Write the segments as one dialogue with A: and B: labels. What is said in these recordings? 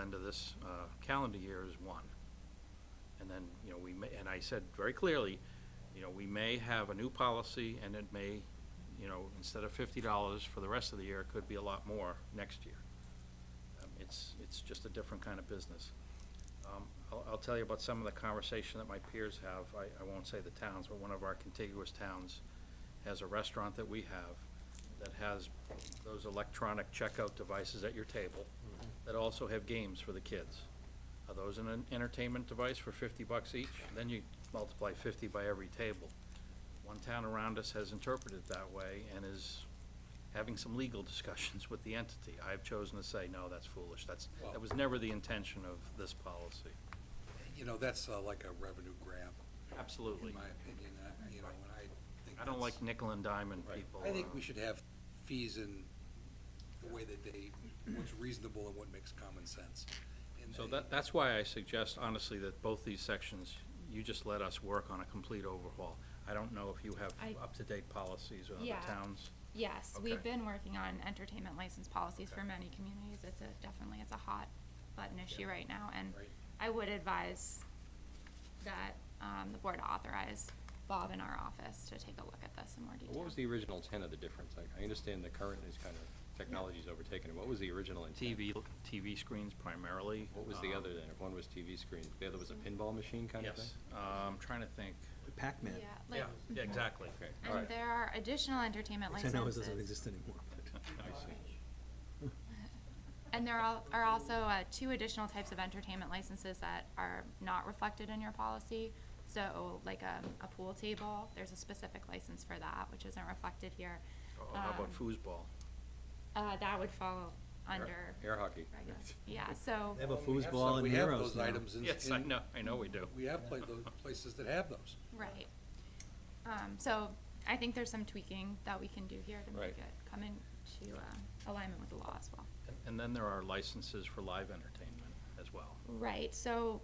A: end of this uh, calendar year is one. And then, you know, we may, and I said very clearly, you know, we may have a new policy and it may, you know, instead of fifty dollars for the rest of the year, it could be a lot more next year. Um, It's, it's just a different kind of business. Um, I'll, I'll tell you about some of the conversation that my peers have. I, I won't say the towns, but one of our contiguous towns has a restaurant that we have that has those electronic checkout devices at your table that also have games for the kids. Are those in an entertainment device for fifty bucks each? Then you multiply fifty by every table. One town around us has interpreted it that way and is having some legal discussions with the entity. I've chosen to say, no, that's foolish. That's, that was never the intention of this policy.
B: You know, that's uh, like a revenue grab,
A: Absolutely.
B: in my opinion, I- you know, and I think
A: I don't
B: that's-
A: like nickel and diamond
B: Right.
A: people.
B: I think
A: uh,
B: we should have fees in the way that they, what's reasonable and what makes common sense. And
A: So
B: they-
A: that, that's why I suggest honestly that both these sections, you just let us work on a complete overhaul. I don't know if you have
C: I-
A: up-to-date policies with
C: Yeah.
A: other towns.
C: Yes,
A: Okay.
C: we've been working on entertainment license policies for
A: Okay.
C: many communities. It's a, definitely, it's a hot button issue right now, and
B: Right.
C: I would advise that, um, the board authorize Bob in our office to take a look at this in more detail.
D: What was the original intent of the difference? Like, I understand the current is kind of, technology's overtaken. it. What was the original intent?
A: TV, TV screens primarily.
D: What was the
A: um,
D: other then? If one was TV screen, the other was a
B: Mm-hmm.
D: pinball machine kind of thing?
A: Yes, um, trying to think.
E: Pac-Man.
C: Yeah,
A: Yeah,
C: like,
A: yeah, exactly.
D: Okay, all
C: and
D: right.
C: there are additional entertainment
E: Which I know it doesn't
C: licenses.
E: exist anymore.
A: I
C: um,
A: see.
C: And there al- are also, uh, two additional types of entertainment licenses that are not reflected in your policy. So like a, a pool table, there's a specific license for that, which isn't reflected here.
A: Oh, How about
C: Um,
A: foosball?
C: Uh, that would fall
D: Air-
C: under.
D: Air hockey.
C: regu- Yeah, so,
E: They have a
B: Well, we have
E: foosball
B: some-
E: and
B: we have
E: heroes
B: those
E: now.
B: items in-
A: Yes, I
B: in-
A: know, I know we do.
B: We have played those places that have those.
C: right. Um, so I think there's some tweaking that we can do here to make
D: Right.
C: it come into, uh, alignment with the law as well.
A: And then there are licenses for live entertainment as well.
C: Right, so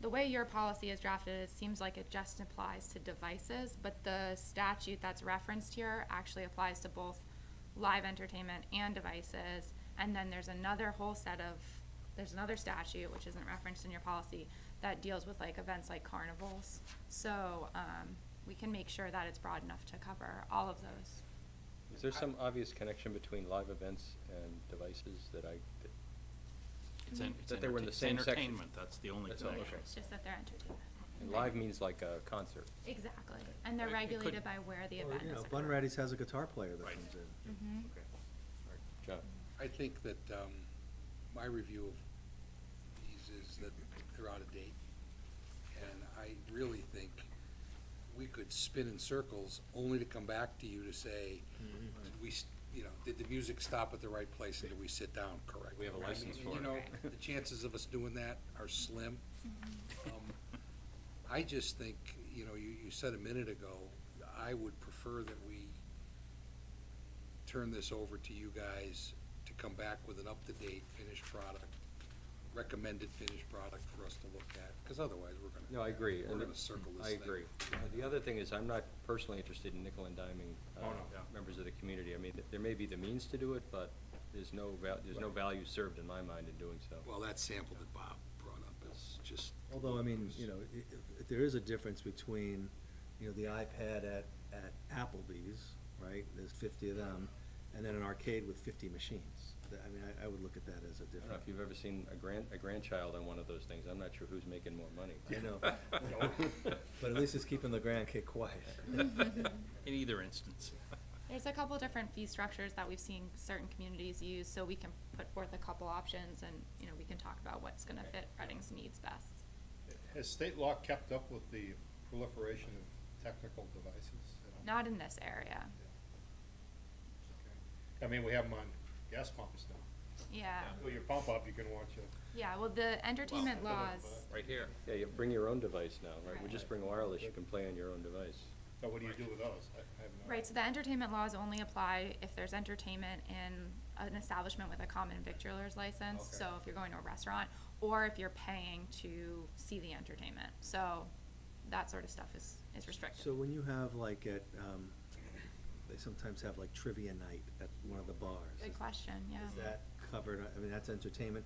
C: the way your policy is drafted, it seems like it just applies to devices, but the statute that's referenced here actually applies to both live entertainment and devices. And then there's another whole set of, there's another statute, which isn't referenced in your policy, that deals with like events like carnivals. So, um, we can make sure that it's broad enough to cover all of those.
D: Is there some obvious connection between live events and devices that I, that-
A: It's en- it's
D: That they were in
A: entertain-
D: the
A: it's
D: same section.
A: Entertainment, that's the only
D: That's all,
A: connection.
D: okay.
C: It's just that they're entertainment.
D: and
B: Mm-hmm.
D: live means like a concert?
C: Exactly, and they're
A: Right, it could-
C: regulated by where the
E: Or,
C: event is
E: you know,
C: occurring.
E: Bunratty's has a guitar player that
A: Right.
E: comes in.
C: Mhm.
D: John,
B: I think that um, my review of these is that they're out of date. And I really think we could spin in circles only to come back to you to say, did
D: Mm-hmm.
B: we, s- you know, did the music stop at the right place and did we sit down correctly?
D: We have a
B: I
D: license
B: mean,
D: for
B: You
D: it.
B: know, the chances of us doing that are slim. Um, I just think, you know, you, you said a minute ago, I would prefer that we turn this over to you guys to come back with an up-to-date finished product, recommended finished product for us to look at, because otherwise we're gonna.
D: No, I agree.
B: We're gonna circle this
D: I
B: thing.
D: agree. Uh, The other thing is, I'm not personally interested in nickel and diming uh,
A: Oh, no, yeah.
D: members of the community. I mean, th- there may be the means to do it, but there's no, val- there's no value served in my mind in doing so.
B: Well, that sample that Bob brought up is just,
E: Although, I mean, you know, i- i- if there is a difference between, you know, the iPad at, at Applebee's, right? There's fifty of them, and then an arcade with fifty machines. That- I mean, I, I would look at that as a
D: I don't know if
E: difference.
D: you've ever seen a grand, a grandchild on one of those things. I'm not sure who's making more money.
E: I know, but at least it's keeping the grand kid quiet.
A: In either instance.
C: There's a couple different fee structures that we've seen certain communities use, so we can put forth a couple options and, you know, we can talk about what's gonna fit Reading's needs best.
F: Has state law kept up with the proliferation of technical devices? at all?
C: Not in this area,
F: I mean, we have them on gas pumps now.
C: yeah,
F: Fill your pump up, you can watch a
C: yeah, well, the entertainment
F: Well,
C: laws,
A: Right here.
D: Yeah, you bring your own device now, right? We just
C: Right.
D: bring wireless, you can play on your own device.
F: So what do you do with those? I I have no.
C: right, so the entertainment laws only apply if there's entertainment in an establishment with a common victualer's license,
F: Okay.
C: so if you're going to a restaurant, or if you're paying to see the entertainment, so that sort of stuff is, is restricted.
E: So when you have like at, um, they sometimes have like trivia night at one of the bars.
C: Good question, yeah.
E: Is that covered, I mean, that's entertainment,